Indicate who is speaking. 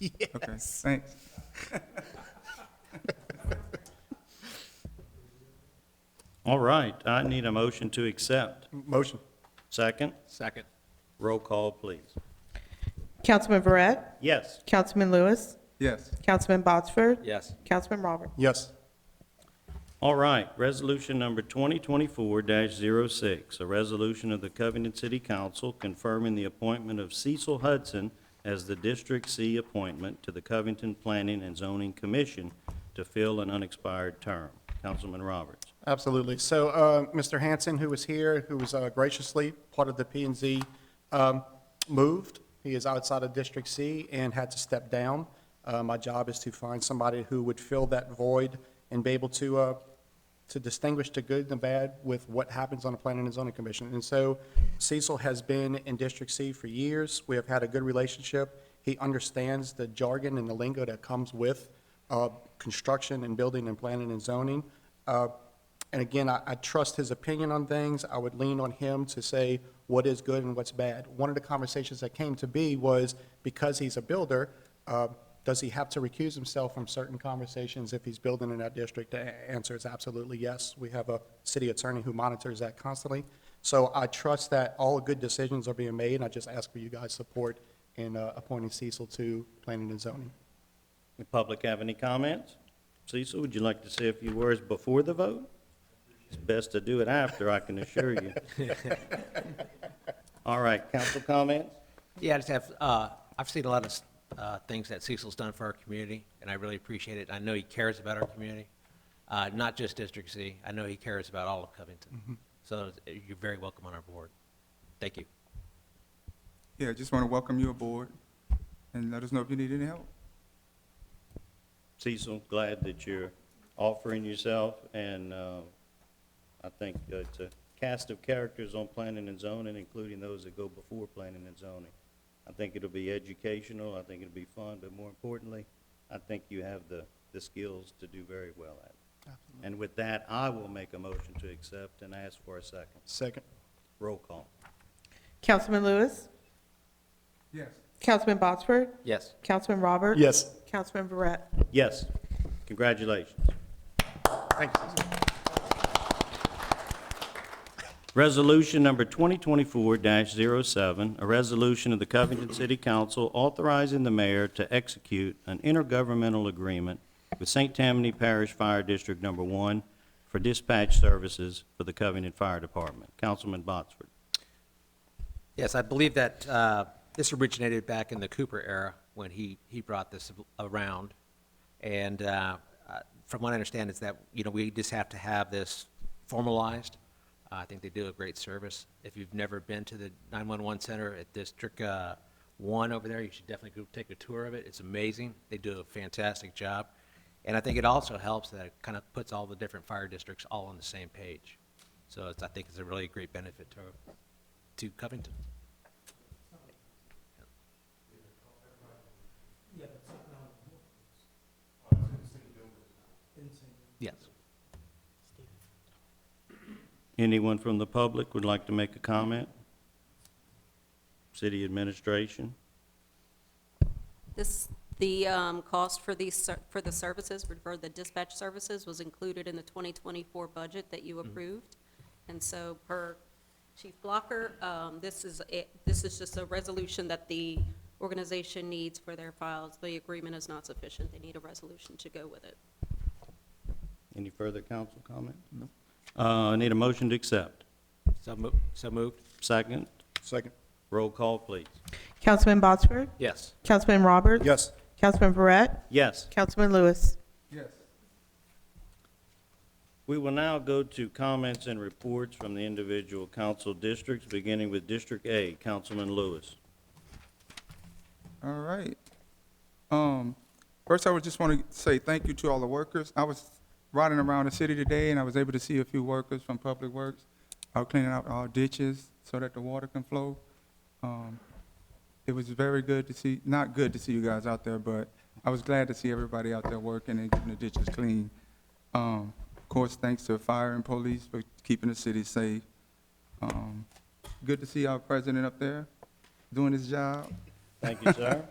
Speaker 1: Okay, thanks.
Speaker 2: All right, I need a motion to accept.
Speaker 1: Motion.
Speaker 2: Second,
Speaker 1: Second.
Speaker 2: roll call, please.
Speaker 3: Councilman Verret,
Speaker 2: Yes,
Speaker 3: Councilman Lewis,
Speaker 1: Yes.
Speaker 3: Councilman Botsford,
Speaker 4: Yes.
Speaker 3: Councilman Robert.
Speaker 1: Yes.
Speaker 2: all right, resolution number 2024-06, a resolution of the Covington City Council confirming the appointment of Cecil Hudson as the District C appointment to the Covington Planning and Zoning Commission to fill an unexpired term. Councilman Roberts.
Speaker 5: Absolutely. So, uh, Mr. Hanson, who was here, who was uh, graciously part of the P and Z, um, moved. He is outside of District C and had to step down. Uh, My job is to find somebody who would fill that void and be able to, uh, to distinguish the good and the bad with what happens on the Planning and Zoning Commission. And so Cecil has been in District C for years. We have had a good relationship. He understands the jargon and the lingo that comes with uh, construction and building and planning and zoning. Uh, and again, I, I trust his opinion on things. I would lean on him to say what is good and what's bad. One of the conversations that came to be was because he's a builder, uh, does he have to recuse himself from certain conversations if he's building in that district? The a- answer is absolutely yes. We have a city attorney who monitors that constantly. So I trust that all good decisions are being made, and I just ask for you guys' support in uh, appointing Cecil to planning and zoning.
Speaker 2: The public have any comments? Cecil, would you like to say a few words before the vote? It's best to do it after, I can assure you. All right, council comments?
Speaker 4: Yeah, I just have, uh, I've seen a lot of uh, things that Cecil's done for our community, and I really appreciate it. I know he cares about our community, uh, not just District C. I know he cares about all of Covington. So uh, you're very welcome on our board. Thank you.
Speaker 1: Yeah, just want to welcome you aboard and let us know if you need any help.
Speaker 2: Cecil, glad that you're offering yourself, and uh, I think it's a cast of characters on planning and zoning, including those that go before planning and zoning. I think it'll be educational, I think it'll be fun, but more importantly, I think you have the, the skills to do very well at it. And with that, I will make a motion to accept and ask for a second.
Speaker 5: Second.
Speaker 2: Roll call.
Speaker 3: Councilman Lewis,
Speaker 1: Yes.
Speaker 3: Councilman Botsford,
Speaker 4: Yes.
Speaker 3: Councilman Robert.
Speaker 5: Yes.
Speaker 3: Councilman Verret.
Speaker 2: Yes, congratulations.
Speaker 5: Thank you.
Speaker 2: Resolution number 2024-07, a resolution of the Covington City Council authorizing the mayor to execute an intergovernmental agreement with St. Tammany Parish Fire District Number 1 for dispatch services for the Covington Fire Department. Councilman Botsford.
Speaker 4: Yes, I believe that uh, this originated back in the Cooper era when he, he brought this around. And uh, uh, from what I understand is that, you know, we just have to have this formalized. Uh, I think they do a great service. If you've never been to the 911 center at District uh, 1 over there, you should definitely go take a tour of it. It's amazing. They do a fantastic job. And I think it also helps that it kind of puts all the different fire districts all on the same page. So it's, I think it's a really great benefit to, to Covington. Yes.
Speaker 2: Anyone from the public would like to make a comment? City administration?
Speaker 6: This, the um, cost for these, ser- for the services, for the dispatch services, was included in the 2024 budget that you approved. And so per Chief Blocker, um, this is, a- this is just a resolution that the organization needs for their files. The agreement is not sufficient. They need a resolution to go with it.
Speaker 2: Any further council comment? No. Uh, need a motion to accept.
Speaker 4: So mo- so moved?
Speaker 2: Second,
Speaker 5: Second.
Speaker 2: roll call, please.
Speaker 3: Councilman Botsford,
Speaker 4: Yes.
Speaker 3: Councilman Robert.
Speaker 5: Yes.
Speaker 3: Councilman Verret,
Speaker 2: Yes.
Speaker 3: Councilman Lewis.
Speaker 1: Yes.
Speaker 2: We will now go to comments and reports from the individual council districts, beginning with District A, Councilman Lewis.
Speaker 1: All right. Um, first, I would just want to say thank you to all the workers. I was riding around the city today, and I was able to see a few workers from Public Works out cleaning out our ditches so that the water can flow. Um, it was very good to see, not good to see you guys out there, but I was glad to see everybody out there working and keeping the ditches clean. Um, of course, thanks to fire and police for keeping the city safe. Um, good to see our president up there doing his job.
Speaker 2: Thank you, sir.